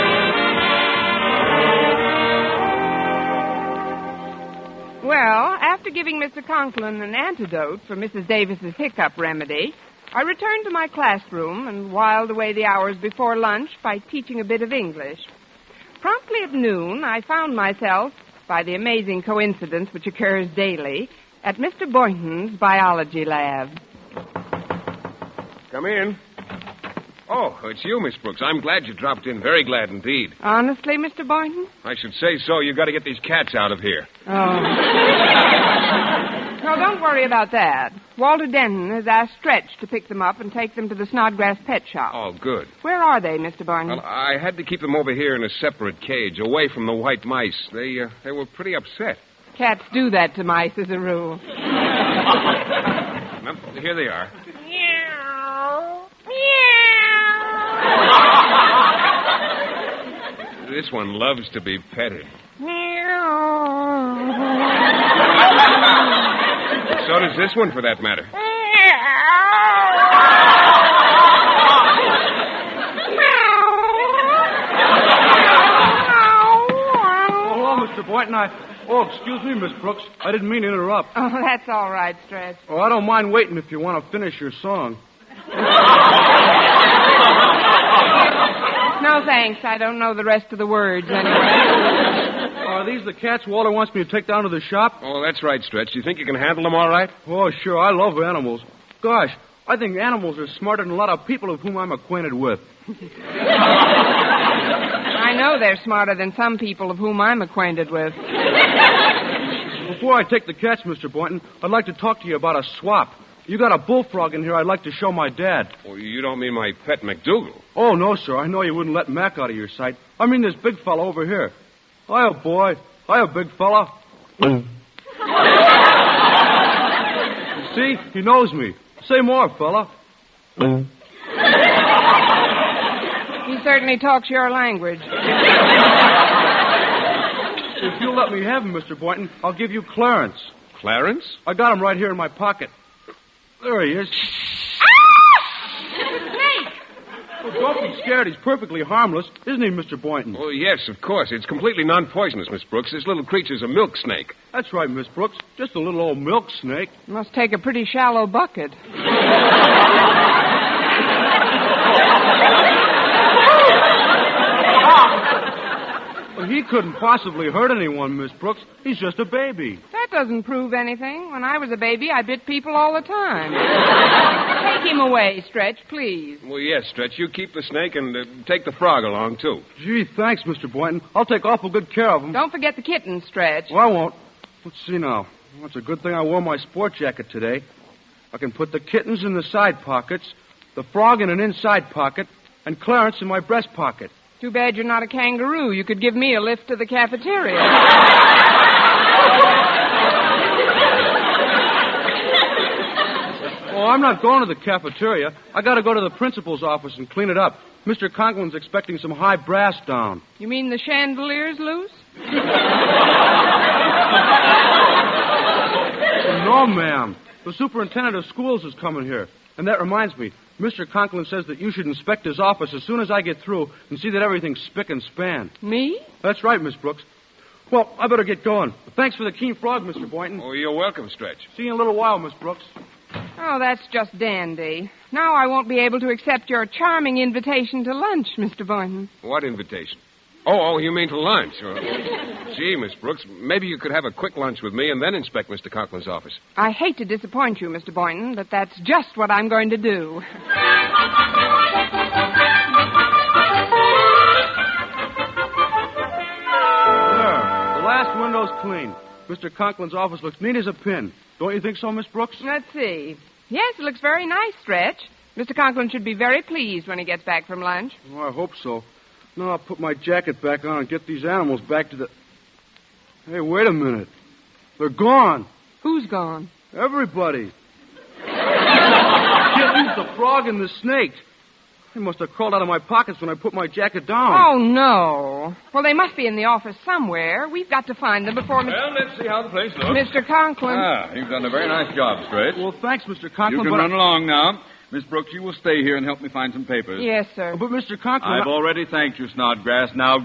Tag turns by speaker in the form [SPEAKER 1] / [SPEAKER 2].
[SPEAKER 1] giving Mr. Conklin an antidote for Mrs. Davis's hiccup remedy, I returned to my classroom and whiled away the hours before lunch by teaching a bit of English. Promptly at noon, I found myself, by the amazing coincidence which occurs daily, at Mr. Boynton's biology lab.
[SPEAKER 2] Come in. Oh, it's you, Miss Brooks. I'm glad you dropped in. Very glad indeed.
[SPEAKER 1] Honestly, Mr. Boynton?
[SPEAKER 2] I should say so. You got to get these cats out of here.
[SPEAKER 1] Oh. No, don't worry about that. Walter Denton has asked Stretch to pick them up and take them to the Snodgrass Pet Shop.
[SPEAKER 2] Oh, good.
[SPEAKER 1] Where are they, Mr. Boynton?
[SPEAKER 2] Well, I had to keep them over here in a separate cage, away from the white mice. They uh, they were pretty upset.
[SPEAKER 1] Cats do that to mice as a rule.
[SPEAKER 2] Well, here they are.
[SPEAKER 3] Meow. Meow.
[SPEAKER 2] This one loves to be petted.
[SPEAKER 3] Meow.
[SPEAKER 2] So does this one, for that matter.
[SPEAKER 3] Meow.
[SPEAKER 4] Oh, hello, Mr. Boynton. I. Oh, excuse me, Miss Brooks. I didn't mean to interrupt.
[SPEAKER 1] Oh, that's all right, Stretch.
[SPEAKER 4] Oh, I don't mind waiting if you want to finish your song.
[SPEAKER 1] No thanks. I don't know the rest of the words anyway.
[SPEAKER 4] Are these the cats Walter wants me to take down to the shop?
[SPEAKER 2] Oh, that's right, Stretch. You think you can handle them all right?
[SPEAKER 4] Oh, sure. I love animals. Gosh, I think animals are smarter than a lot of people of whom I'm acquainted with.
[SPEAKER 1] I know they're smarter than some people of whom I'm acquainted with.
[SPEAKER 4] Before I take the cats, Mr. Boynton, I'd like to talk to you about a swap. You got a bullfrog in here I'd like to show my dad.
[SPEAKER 2] Well, Oh, you don't mean my pet McDougal.
[SPEAKER 4] Oh, no, sir. I know you wouldn't let Mac out of your sight. I mean this big fella over here. Hiya, boy. Hiya, big fella. You See? He knows me. Say more, fella.
[SPEAKER 1] He certainly talks your language.
[SPEAKER 4] If you'll let me have him, Mr. Boynton, I'll give you Clarence.
[SPEAKER 2] Clarence?
[SPEAKER 4] I got him right here in my pocket. There he is. Well, Oh, don't be scared. He's perfectly harmless, isn't he, Mr. Boynton?
[SPEAKER 2] Oh, yes, of course. It's completely non poisonous, Miss Brooks. This little creature's a milk snake.
[SPEAKER 4] That's right, Miss Brooks. Just a little old milk snake.
[SPEAKER 1] Must take a pretty shallow bucket.
[SPEAKER 4] Well, he couldn't possibly hurt anyone, Miss Brooks. He's just a baby.
[SPEAKER 1] That doesn't prove anything. When I was a baby, I bit people all the time. Take him away, Stretch, please.
[SPEAKER 2] Well, yes, Stretch. You keep the snake and uh, take the frog along, too.
[SPEAKER 4] Gee, thanks, Mr. Boynton. I'll take awful good care of him.
[SPEAKER 1] Don't forget the kitten, Stretch.
[SPEAKER 4] Well, I won't. Let's see now. Well, it's a good thing I wore my sport jacket today. I can put the kittens in the side pockets, the frog in an inside pocket, and Clarence in my breast pocket.
[SPEAKER 1] Too bad you're not a kangaroo. You could give me a lift to the cafeteria.
[SPEAKER 4] Oh, I'm not going to the cafeteria. I got to go to the principal's office and clean it up. Mr. Conklin's expecting some high brass down.
[SPEAKER 1] You mean the chandelier's loose?
[SPEAKER 4] Oh, No, ma'am. The superintendent of schools is coming here. And that reminds me, Mr. Conklin says that you should inspect his office as soon as I get through and see that everything's spick and span.
[SPEAKER 1] Me?
[SPEAKER 4] That's right, Miss Brooks. Well, I better get going. Thanks for the keen frog, Mr. Boynton.
[SPEAKER 2] Oh, you're welcome, Stretch.
[SPEAKER 4] See you in a little while, Miss Brooks.
[SPEAKER 1] Oh, that's just dandy. Now I won't be able to accept your charming invitation to lunch, Mr. Boynton.
[SPEAKER 2] What invitation? Oh, oh, you mean to lunch? Oh, Gee, Miss Brooks, maybe you could have a quick lunch with me and then inspect Mr. Conklin's office.
[SPEAKER 1] I hate to disappoint you, Mr. Boynton, but that's just what I'm going to do.
[SPEAKER 4] There. The last window's clean. Mr. Conklin's office looks neat as a pin. Don't you think so, Miss Brooks?
[SPEAKER 1] Let's see. Yes, it looks very nice, Stretch. Mr. Conklin should be very pleased when he gets back from lunch.
[SPEAKER 4] Oh, I hope so. Now I'll put my jacket back on and get these animals back to the. Hey, wait a minute. They're gone.
[SPEAKER 1] Who's gone?
[SPEAKER 4] Everybody. Kittens, the frog, and the snake. They must have crawled out of my pockets when I put my jacket down.
[SPEAKER 1] Oh, no. Well, they must be in the office somewhere. We've got to find them before Mr.
[SPEAKER 5] Well, let's see how the place looks.
[SPEAKER 1] Mr. Conklin.
[SPEAKER 2] uh,
[SPEAKER 5] Ah, you've done a very nice job, Stretch.
[SPEAKER 4] Well, thanks, Mr.
[SPEAKER 5] you
[SPEAKER 4] Conklin.
[SPEAKER 5] can
[SPEAKER 4] but,
[SPEAKER 5] run along now. Miss Brooks, you will stay here and help me find some papers.
[SPEAKER 1] yes, sir.
[SPEAKER 4] but Mr. Conklin.
[SPEAKER 5] I've already thanked you, Snodgrass. Now